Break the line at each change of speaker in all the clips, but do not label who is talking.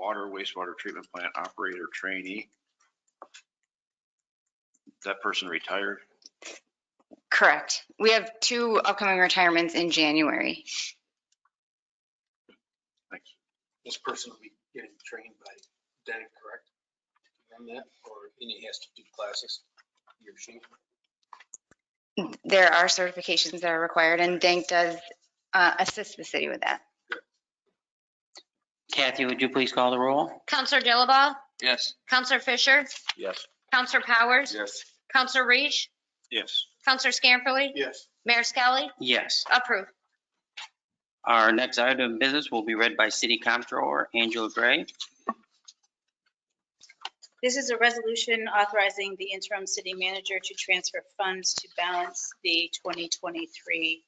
hire wastewater treatment plant operator trainee. That person retired.
Correct. We have two upcoming retirements in January.
This person will be getting trained by Denny, correct? On that, or and he has to do classes, he or she?
There are certifications that are required and Dank does uh, assist the city with that.
Kathy, would you please call the roll?
Counselor Dilaba?
Yes.
Counselor Fisher?
Yes.
Counselor Powers?
Yes.
Counselor Reach?
Yes.
Counselor Scamperly?
Yes.
Mayor Skelly?
Yes.
Approved.
Our next item of business will be read by City Comptroller Angela Gray.
This is a resolution authorizing the interim city manager to transfer funds to balance the 2023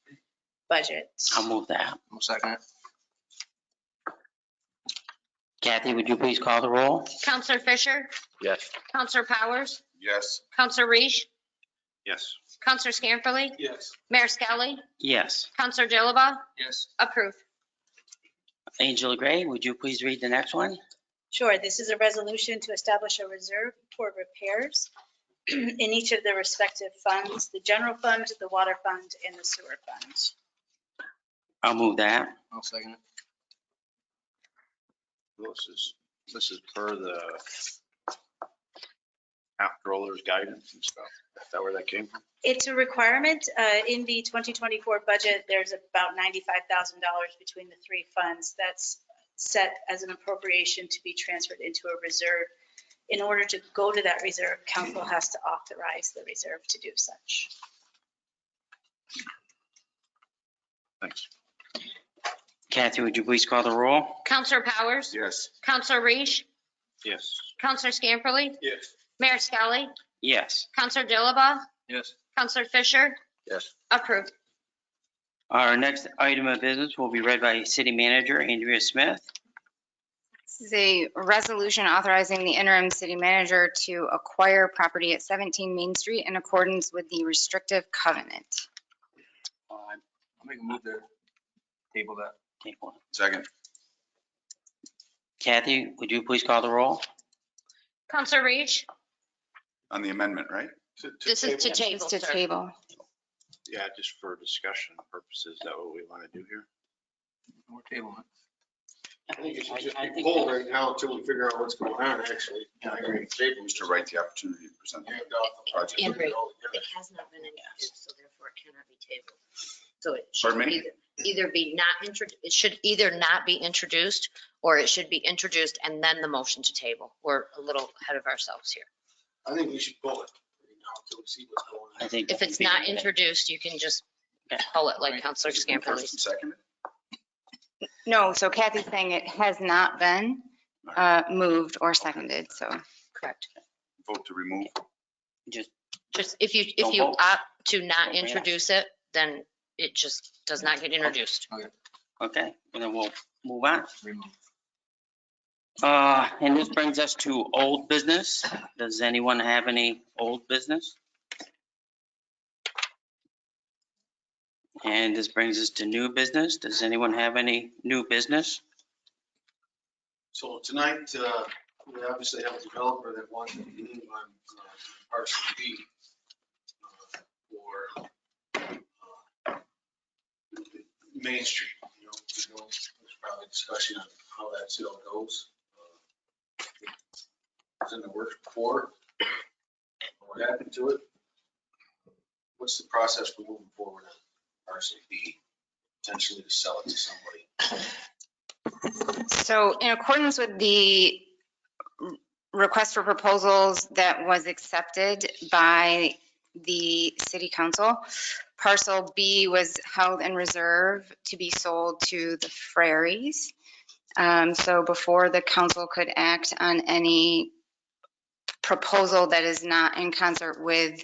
budget.
I'll move that.
One second.
Kathy, would you please call the roll?
Counselor Fisher?
Yes.
Counselor Powers?
Yes.
Counselor Reach?
Yes.
Counselor Scamperly?
Yes.
Mayor Skelly?
Yes.
Counselor Dilaba?
Yes.
Approved.
Angela Gray, would you please read the next one?
Sure, this is a resolution to establish a reserve for repairs in each of the respective funds, the general fund, the water fund, and the sewer fund.
I'll move that.
One second.
This is, this is per the comptroller's guidance and stuff. Is that where that came from?
It's a requirement. uh, In the 2024 budget, there's about $95,000 between the three funds. That's set as an appropriation to be transferred into a reserve. In order to go to that reserve, council has to authorize the reserve to do such.
Thanks.
Kathy, would you please call the roll?
Counselor Powers?
Yes.
Counselor Reach?
Yes.
Counselor Scamperly?
Yes.
Mayor Skelly?
Yes.
Counselor Dilaba?
Yes.
Counselor Fisher?
Yes.
Approved.
Our next item of business will be read by City Manager Andrea Smith.
This is a resolution authorizing the interim city manager to acquire property at 17 Main Street in accordance with the restrictive covenant.
I'll make a move to table that.
Take one.
Second.
Kathy, would you please call the roll?
Counselor Reach?
on the amendment, right?
This is to table,
Just to
sir.
table.
Yeah, just for discussion purposes, is that what we want to do here?
We're tabling it.
I
think it should just
I
be
think
pulled
that's-
right now until we figure out what's going on, actually. I agree.
Just to write the opportunity to present the
Hand off the project.
And right.
Yeah.
It has not been introduced, so therefore it cannot be tabled. So it should
Pardon me?
either- either be not introduced, it should either not be introduced or it should be introduced and then the motion to table. We're a little ahead of ourselves here.
I think we should pull it right now until we see what's going
I
on.
think.
If it's not introduced, you can just pull it like Counselor Scamperly.
First and second.
No, so Kathy's saying it has not been uh, moved or seconded, so.
Correct.
Vote to remove.
Just,
Just if you,
Don't
if you
vote.
opt to
Don't
not
vote.
introduce it, then it just does not get introduced.
okay, and then we'll move on.
Remove.
Uh, and this brings us to old business. Does anyone have any old business? And this brings us to new business. Does anyone have any new business?
So tonight, uh, we obviously have a developer that wants to move on uh, parcel B uh, for uh, Main Street, you know, we know there's probably discussion on how that sale goes. Uh, It's in the works before. What happened to it? What's the process for moving forward on parcel B, potentially to sell it to somebody?
So in accordance with the request for proposals that was accepted by the city council, parcel B was held in reserve to be sold to the Frarys. Um, So before the council could act on any proposal that is not in concert with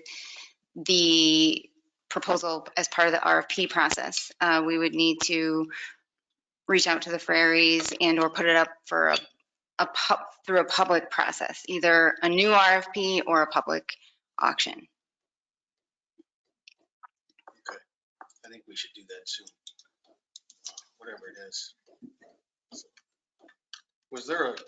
the proposal as part of the RFP process, uh, we would need to reach out to the Frarys and or put it up for a, a pub, through a public process, either a new RFP or a public auction.
I think we should do that Uh, soon, whatever it is. Was there a